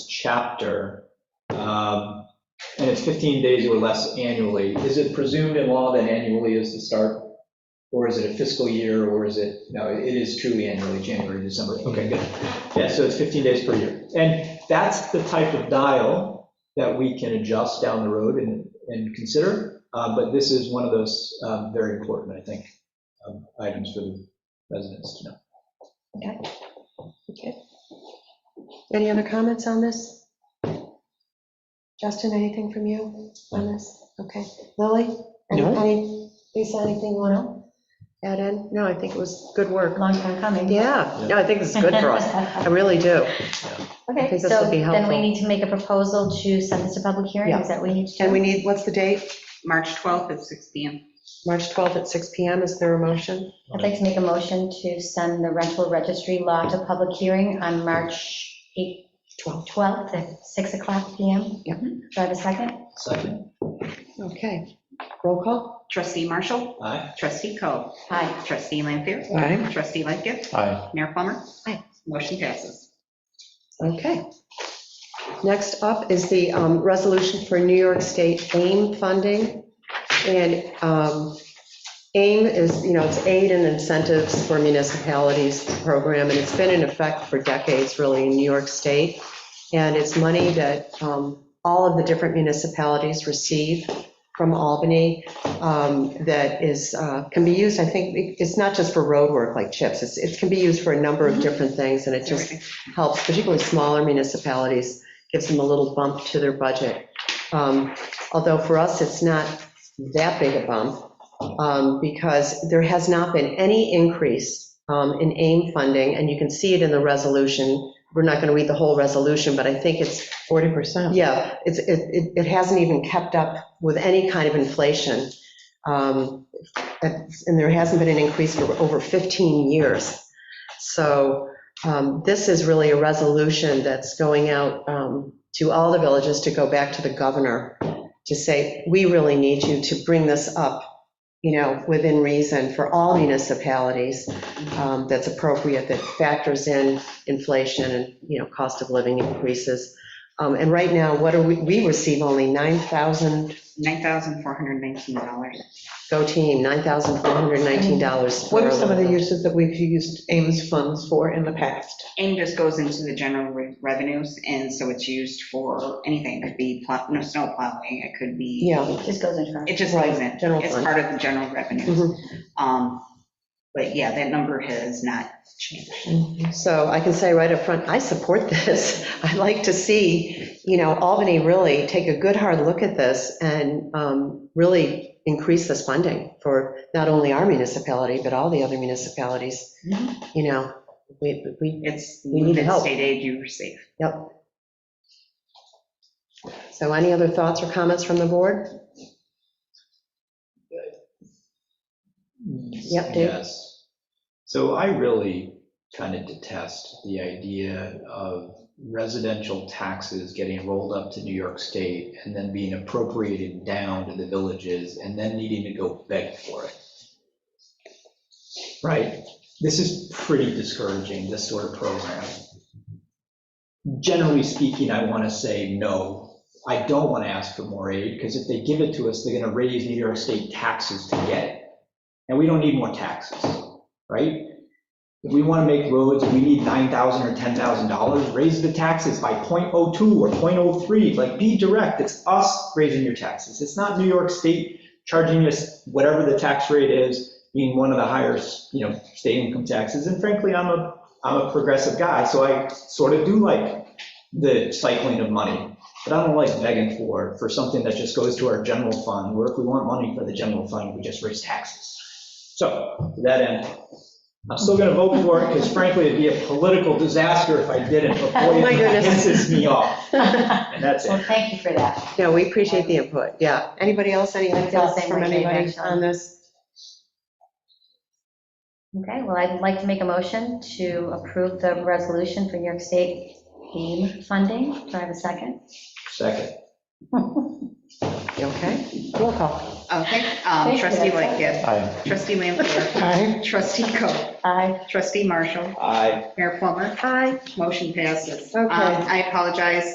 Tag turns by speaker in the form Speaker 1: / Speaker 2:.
Speaker 1: chapter, um, and it's 15 days or less annually, is it presumed in law that annually is the start? Or is it a fiscal year, or is it, no, it is truly annually, January, December. Okay, good. Yeah, so it's 15 days per year. And that's the type of dial that we can adjust down the road and, and consider. uh, But this is one of those um, very important, I think, um, items for the residents to know.
Speaker 2: Okay. Any other comments on this? Justin, anything from you on this? Okay. Lily? Any-
Speaker 3: No.
Speaker 2: any- Lisa, anything you want to add in? No, I think it was good work.
Speaker 4: Long time coming.
Speaker 3: Yeah, yeah, I think it's good for us. I really do. I
Speaker 4: Okay,
Speaker 3: think this
Speaker 4: so
Speaker 3: would be
Speaker 4: then we
Speaker 3: helpful.
Speaker 4: need to make a proposal to send this to public hearing,
Speaker 3: Yeah.
Speaker 4: is that what we need to do?
Speaker 2: And we need, what's the date?
Speaker 5: March 12th at 6 PM.
Speaker 2: March 12th at 6 PM. Is there a motion?
Speaker 4: I'd like to make a motion to send the rental registry law to public hearing on March 8th, 12th at 6 o'clock PM.
Speaker 2: Yep.
Speaker 4: Do I have a second?
Speaker 1: Second,
Speaker 2: Okay. Roll call?
Speaker 5: Trustee Marshall,
Speaker 1: aye?
Speaker 5: trustee Coe,
Speaker 4: Aye.
Speaker 5: trustee Lampier,
Speaker 2: Aye.
Speaker 5: trustee Lightgift,
Speaker 1: Aye.
Speaker 5: Mayor Plummer.
Speaker 2: Aye.
Speaker 5: Motion passes.
Speaker 2: Okay. Next up is the um, resolution for New York State AIM funding. And um, AIM is, you know, it's aid and incentives for municipalities program, and it's been in effect for decades, really, in New York State. And it's money that um, all of the different municipalities receive from Albany um, that is, uh, can be used, I think, it's not just for road work like CHIPS, it's- it can be used for a number of different things, and it just helps, particularly smaller municipalities, gives them a little bump to their budget. Um, Although for us, it's not that big a bump, um, because there has not been any increase um, in AIM funding, and you can see it in the resolution. We're not going to read the whole resolution, but I think it's,
Speaker 3: 40%.
Speaker 2: yeah, it's, it, it- it hasn't even kept up with any kind of inflation. Um, And there hasn't been an increase for over 15 years. So um, this is really a resolution that's going out um, to all the villages to go back to the governor to say, we really need you to bring this up, you know, within reason for all municipalities um, that's appropriate, that factors in inflation and, you know, cost of living increases. Um, And right now, what are we, we receive only 9,000,
Speaker 5: $9,419.
Speaker 2: go team, $9,419.
Speaker 6: What are
Speaker 2: for a
Speaker 6: some of the
Speaker 2: local.
Speaker 6: uses that we've used Ames funds for in the past?
Speaker 5: AIM just goes into the general re- revenues, and so it's used for anything. It could be plow, no, snow plowing, it could be,
Speaker 2: Yeah.
Speaker 4: It just goes in front.
Speaker 5: it just goes
Speaker 2: Right,
Speaker 5: in.
Speaker 2: general
Speaker 5: It's
Speaker 2: fund. Mm-hmm.
Speaker 5: part of the general revenues. Um, But yeah, that number has not changed.
Speaker 2: So I can say right up front, I support this. I'd like to see, you know, Albany really take a good hard look at this and um, really increase this funding for not only our municipality, but all the other municipalities.
Speaker 4: Mm-hmm.
Speaker 2: You know, we, we,
Speaker 5: It's
Speaker 2: We need
Speaker 5: limited
Speaker 2: help.
Speaker 5: state aid you receive.
Speaker 2: yep. So any other thoughts or comments from the board? Yep, Dave.
Speaker 1: Yes. So I really kind of detest the idea of residential taxes getting rolled up to New York State and then being appropriated down to the villages and then needing to go beg for it. Right? This is pretty discouraging, this sort of program. Generally speaking, I want to say no. I don't want to ask for more aid because if they give it to us, they're going to raise New York State taxes to get it. And we don't need more taxes, right? If we want to make roads, and we need $9,000 or $10,000, raise the taxes by .02 or .03, like, be direct, it's us raising your taxes. It's not New York State charging us whatever the tax rate is, being one of the higher, you know, state income taxes. And frankly, I'm a, I'm a progressive guy, so I sort of do like the cycling of money. But I don't like begging for, for something that just goes to our general fund, where if we want money for the general fund, we just raise taxes. So, to that end, I'm still gonna vote for it, because frankly, it'd be a political disaster if I didn't, but boy,
Speaker 2: Oh my
Speaker 1: it
Speaker 2: goodness.
Speaker 1: pisses me off,
Speaker 4: Well,
Speaker 1: and that's it.
Speaker 4: thank you for that.
Speaker 2: No, we appreciate the input, yeah. Anybody else, any
Speaker 4: I feel the
Speaker 2: thoughts
Speaker 4: same
Speaker 2: from
Speaker 4: way, Dave,
Speaker 2: anybody
Speaker 4: actually.
Speaker 2: on this?
Speaker 4: Okay, well, I'd like to make a motion to approve the resolution for New York State AIM funding. Do I have a second?
Speaker 1: Second.
Speaker 2: Okay, roll call.
Speaker 5: Okay,
Speaker 4: Thank
Speaker 5: um,
Speaker 4: you.
Speaker 5: trustee Lightgift,
Speaker 1: Aye.
Speaker 5: trustee Lampier,
Speaker 6: Aye.
Speaker 5: trustee Coe,
Speaker 4: Aye.
Speaker 5: trustee Marshall,
Speaker 1: Aye.
Speaker 5: Mayor Plummer. Aye. Motion passes.
Speaker 2: Okay.
Speaker 5: Um, I apologize